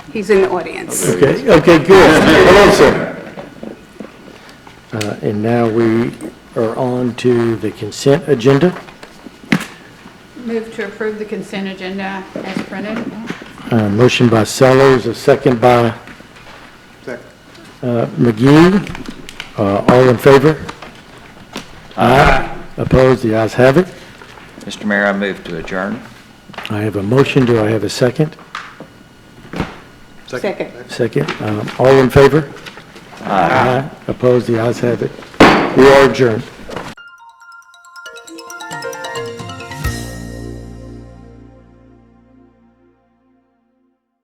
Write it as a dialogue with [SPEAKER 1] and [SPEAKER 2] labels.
[SPEAKER 1] He's in the audience.
[SPEAKER 2] Okay, okay, good. Hello, sir. Uh, And now we are on to the consent agenda.
[SPEAKER 3] Move to approve the consent agenda as printed.
[SPEAKER 2] Uh, Motion by Sellers, a second by uh, McGee. Uh, All in favor? Aye. Opposed? The ayes have it.
[SPEAKER 4] Mr. Mayor, I move to adjourn.
[SPEAKER 2] I have a motion. Do I have a second?
[SPEAKER 1] Second.
[SPEAKER 2] Second. Um, All in favor? Aye. Opposed? The ayes have it. We are adjourned.